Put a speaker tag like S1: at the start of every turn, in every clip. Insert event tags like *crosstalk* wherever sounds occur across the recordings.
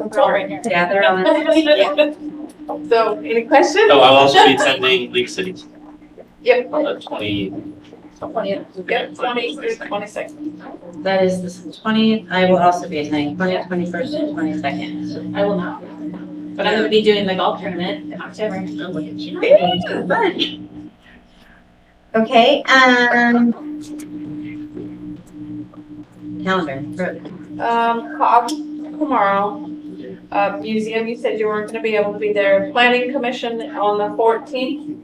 S1: It's all
S2: *laughs*
S1: right here.
S2: Gather on.
S1: So any questions?
S3: So I'll also be attending League City
S1: Yep.
S3: on the twenty.
S1: Twentieth, yep, twenty, twenty-second.
S2: That is the twentieth, I will also be attending, twentieth, twenty-first, and twenty-second. I will not. But I'm gonna be doing the golf tournament in October.
S4: Okay, um.
S2: Calendar,
S1: Um, call tomorrow. Uh, museum, you said you weren't gonna be able to be there. Planning commission on the fourteenth.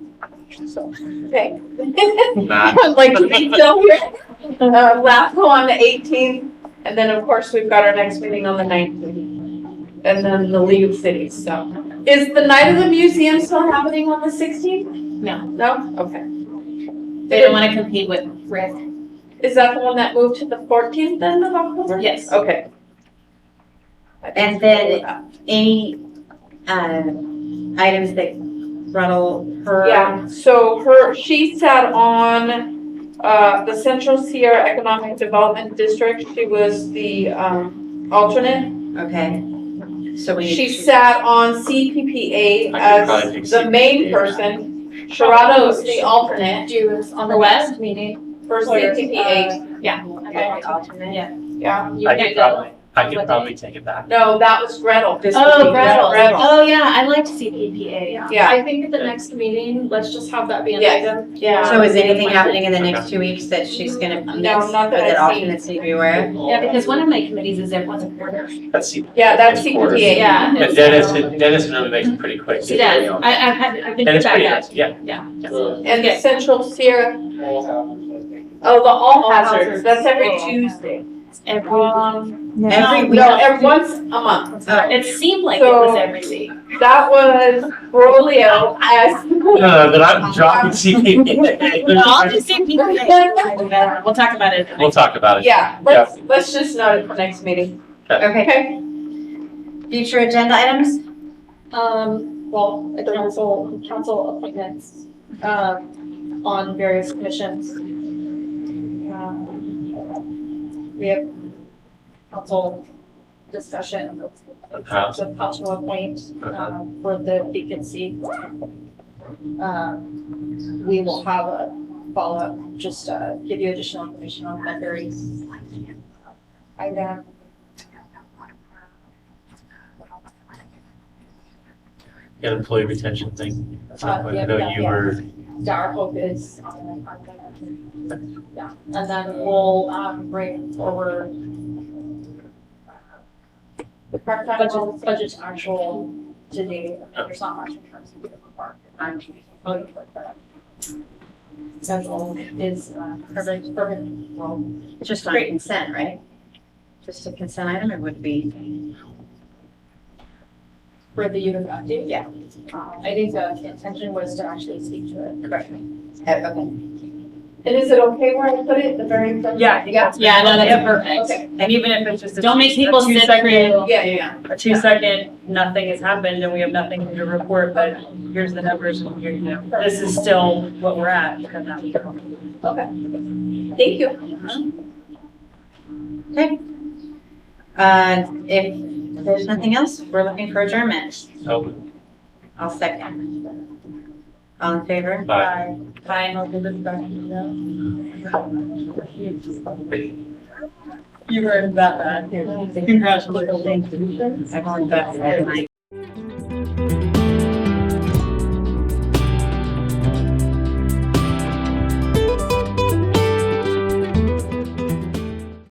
S1: Okay. *laughs*
S3: Nah.
S2: *laughs*
S1: Like, you know, uh, LAFCO on the eighteenth, and then, of course, we've got our next meeting on the nineteenth. And then the League of Cities, so. Is the night of the museum still happening on the sixteenth?
S2: No.
S1: No? Okay.
S2: they don't wanna compete with Rick.
S1: Is that the one that moved to the fourteenth then of October?
S2: Yes.
S1: Okay.
S4: And then- Any, um, items that rattle her?
S1: Yeah, so her, she sat on, uh, the Central Sierra Economic Development District, she was the, um, alternate.
S4: Okay,
S2: So we.
S1: She sat on CPPA
S3: I could probably
S1: as
S3: fix
S1: the main
S3: CPPA.
S1: person. Sharada was the alternate
S5: Jews on the
S2: For what?
S5: last meeting.
S1: for
S5: Where,
S1: CPPA,
S5: uh,
S2: Yeah.
S5: okay.
S2: Yeah.
S1: yeah.
S5: You
S3: I
S5: did
S3: could
S5: that.
S3: probably, I could probably take it back.
S1: No, that was Gretel.
S4: This would
S5: Oh,
S4: be
S5: Gretel.
S1: Gretel.
S5: Oh, yeah, I liked
S2: E
S5: CPPA, yeah.
S1: Yeah.
S5: I think at the next meeting, let's just have that be an
S1: Yes.
S5: item.
S1: Yeah.
S4: so is anything happening in the next two weeks that she's gonna
S1: uh, No,
S4: miss?
S1: not that
S4: But
S1: I've
S4: that
S1: seen.
S4: alternates need to be aware?
S2: Yeah, because one of my committees is at once a quarter.
S3: That's C.
S1: Yeah, that's
S3: Of course.
S1: CPPA.
S5: Yeah.
S3: But Dennis, Dennis really makes it pretty quick.
S2: She does, I, I've had, I've been
S3: And it's
S2: back
S3: pretty
S2: up.
S3: nice, yeah.
S1: And the
S2: Okay.
S1: Central Sierra, oh, the All
S5: All
S1: Hazards,
S5: Hazards.
S1: that's every
S5: Oh.
S1: Tuesday.
S2: Every,
S4: Every week?
S1: No, every, once a month.
S4: Oh,
S2: um, it seemed like it was
S1: So-
S2: every
S3: *laughs*
S2: week.
S1: That was Rolio as.
S3: No, no, Uh, but I'm dropping CPA.
S2: No, *laughs* I'll just see people. E
S5: *laughs*
S2: We'll talk about it.
S3: *laughs* We'll talk about it.
S1: Yeah, let's, let's just note it for next meeting,
S4: Okay,
S1: okay?
S4: future agenda items?
S5: Um, well, at the council, council appointments, um, on various commissions. Um, We have council discussion of
S3: Uh-huh.
S5: of possible appoint,
S3: Uh-huh.
S5: um, for the vacancy. Um, we will have a follow-up, just, uh, give you additional information on that very item.
S3: Got employee retention thing. That's
S5: Uh,
S3: not what
S5: yeah,
S3: I know
S5: yeah,
S3: you
S5: yeah.
S3: were,
S5: Yeah, our hope is on, on the, yeah, and then we'll, um, bring forward
S1: Part-time
S5: budget, budget actual today, there's not much in terms of the park. I'm voting for that. Central is, uh, perfect, perfect, well,
S4: Just on consent, right? Just a consent item, it would be,
S5: for the youth update.
S4: Yeah.
S5: Um, I think the intention was to actually speak to it. Correct.
S4: okay.
S1: And is it okay where I put it, the very? front?
S6: Yeah, yeah.
S2: Yeah, no, that's
S1: Okay.
S2: perfect.
S6: And even if it's just a.
S2: Don't make people
S6: a
S2: sit
S6: two-second-
S2: through.
S1: Yeah, yeah,
S6: A two second, nothing has happened and we have nothing to report, but here's the numbers and here, you know, this is still what we're at. because now we don't.
S1: yeah. Thank you.
S4: Uh, if there's nothing else, we're looking for adjournment.
S3: so,
S4: I'll second. All in favor?
S3: bye.
S4: Aye.
S6: You were that bad. Congratulations.
S4: I've only got seven.